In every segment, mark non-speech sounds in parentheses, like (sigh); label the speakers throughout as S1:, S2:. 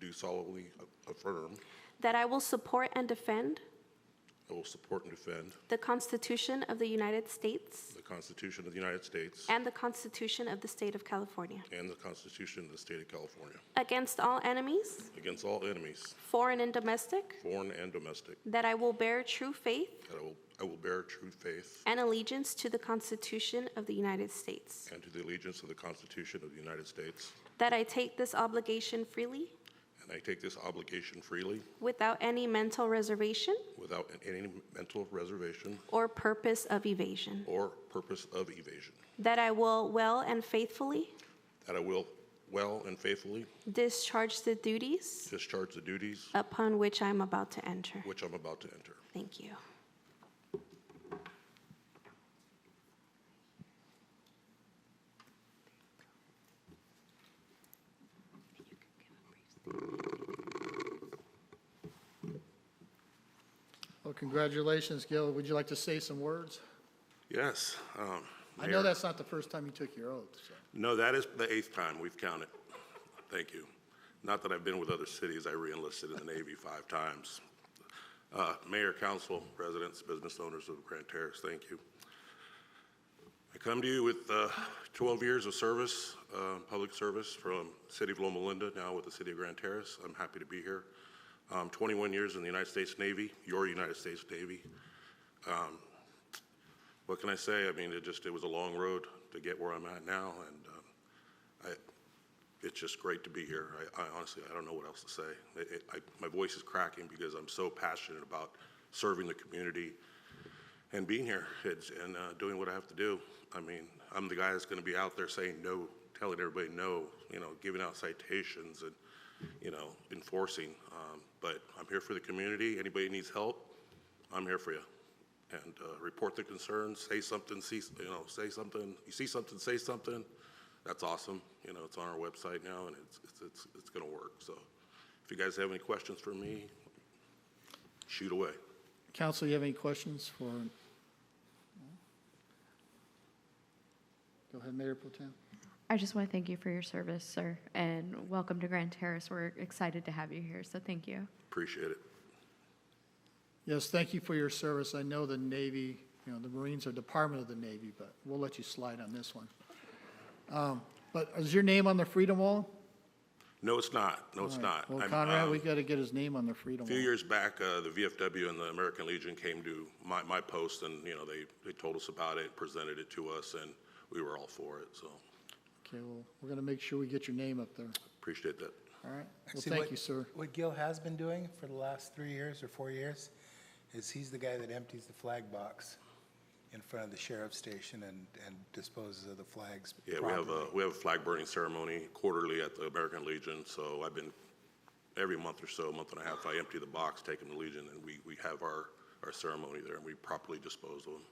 S1: do solemnly affirm
S2: that I will support and defend
S1: I will support and defend
S2: the Constitution of the United States
S1: the Constitution of the United States
S2: and the Constitution of the State of California
S1: and the Constitution of the State of California
S2: against all enemies,
S1: against all enemies,
S2: foreign and domestic,
S1: foreign and domestic,
S2: that I will bear true faith
S1: that I will I will bear true faith
S2: and allegiance to the Constitution of the United States,
S1: and to the allegiance of the Constitution of the United States,
S2: that I take this obligation freely
S1: and I take this obligation freely
S2: without any mental reservation
S1: without any mental reservation
S2: or purpose of evasion,
S1: or purpose of evasion,
S2: that I will well and faithfully
S1: that I will well and faithfully
S2: discharge the duties
S1: discharge the duties
S2: upon which I am about to enter.
S1: which I'm about to enter.
S2: Thank you.
S3: Well, congratulations, Gil. Would you like to say some words?
S1: Yes. um,
S3: I
S1: Mayor.
S3: know that's not the first time you took your oath, so.
S1: No, that is the eighth time we've counted. Thank you. Not that I've been with other cities, I reenlisted in the Navy five times. Uh, Mayor, council, residents, business owners of Grand Terrace, thank you. I come to you with uh, 12 years of service, uh, public service from City of Loma Linda, now with the City of Grand Terrace. I'm happy to be here. Um, 21 years in the United States Navy, your United States Navy. What can I say? I mean, it just, it was a long road to get where I'm at now, and um, it's just great to be here. I, I honestly, I don't know what else to say. It, it, I, my voice is cracking because I'm so passionate about serving the community and being here it's, and uh, doing what I have to do. I mean, I'm the guy that's going to be out there saying no, telling everybody no, you know, giving out citations and, you know, enforcing. Um, but I'm here for the community. Anybody needs help, I'm here for you. And uh, report the concerns, say something, see, you know, say something. You see something, say something. That's awesome. You know, it's on our website now, and it's, it's, it's, it's going to work. So if you guys have any questions for me, shoot away.
S3: Council, you have any questions for? Go ahead, Mayor Pro Tem.
S4: I just want to thank you for your service, sir, and welcome to Grand Terrace. We're excited to have you here, so thank you.
S1: Appreciate it.
S3: Yes, thank you for your service. I know the Navy, you know, the Marines are Department of the Navy, but we'll let you slide on this one. Um, But is your name on the Freedom Wall?
S1: No, it's not. No, it's not.
S3: Well,
S1: I'm,
S3: Conrad,
S1: um,
S3: we got to get his name on the Freedom
S1: A
S3: Wall.
S1: few years back, uh, the VFW and the American Legion came to my, my post, and, you know, they, they told us about it, presented it to us, and we were all for it. So
S3: Okay, well, we're going to make sure we get your name up there.
S1: appreciate that.
S3: All right? Well,
S5: Actually,
S3: thank
S5: what-
S3: you, sir.
S5: What Gil has been doing for the last three years or four years is he's the guy that empties the flag box in front of the sheriff's station and, and disposes of the flags
S1: Yeah, we have a,
S5: properly.
S1: we have a flag burning ceremony quarterly at the American Legion, so I've been, every month or so, month and a half, I empty the box, take them to Legion, and we, we have our, our ceremony there, and we properly dispose of them.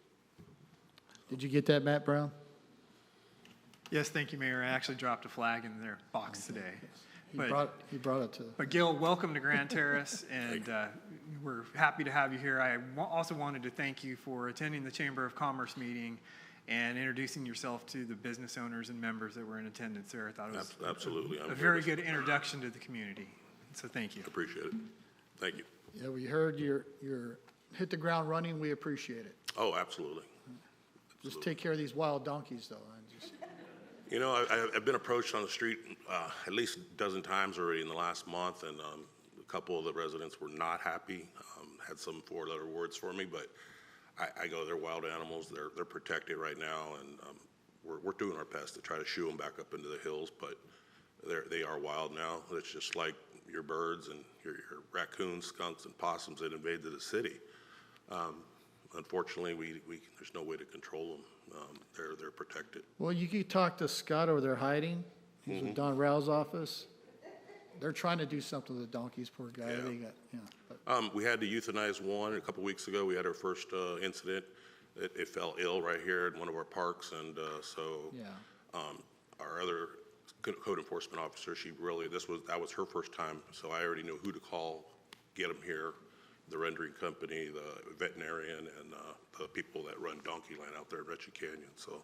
S3: Did you get that, Matt Brown?
S6: Yes, thank you, Mayor. I actually dropped a flag in their box today.
S3: He
S6: But,
S3: brought, he brought it to the.
S6: but Gil, welcome
S3: (laughs)
S6: to Grand Terrace, and uh, we're happy to have you here. I wa- also wanted to thank you for attending the Chamber of Commerce meeting and introducing yourself to the business owners and members that were in attendance there. I thought it was
S1: Ab- Absolutely. I'm
S6: a
S1: here
S6: very
S1: to-
S6: good introduction to the community, so thank you.
S1: Appreciate it. Thank you.
S3: Yeah, we heard your, your, hit the ground running, we appreciate it.
S1: Oh, absolutely.
S3: Just take care of these wild donkeys, though. I just-
S1: You know, I- I, I've been approached on the street uh, at least a dozen times already in the last month, and um, a couple of the residents were not happy. Um, had some four-letter words for me, but I, I go, they're wild animals. They're they're protected right now, and um, we're we're doing our best to try to shoo them back up into the hills, but they're they are wild now. It's just like your birds and your, your raccoons, skunks, and possums that invaded the city. Um, unfortunately, we, we there's no way to control them. Um, they're they're protected.
S3: Well, you could talk to Scott over there hiding. He's in Don Rao's office. They're trying to do something with the donkeys, poor guy.
S1: Yeah.
S3: They got, yeah. But
S1: Um, we had to euthanize one a couple weeks ago. We had our first uh, incident. It, it fell ill right here in one of our parks, and uh, so
S3: Yeah.
S1: um, our other co- code enforcement officer, she really this was that was her first time, so I already knew who to call, get them here, the rendering company, the veterinarian, and uh, the people that run Donkey Land out there at Retchie Canyon. So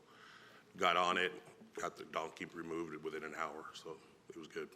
S1: got on it, got the donkey removed within an hour, so it was good.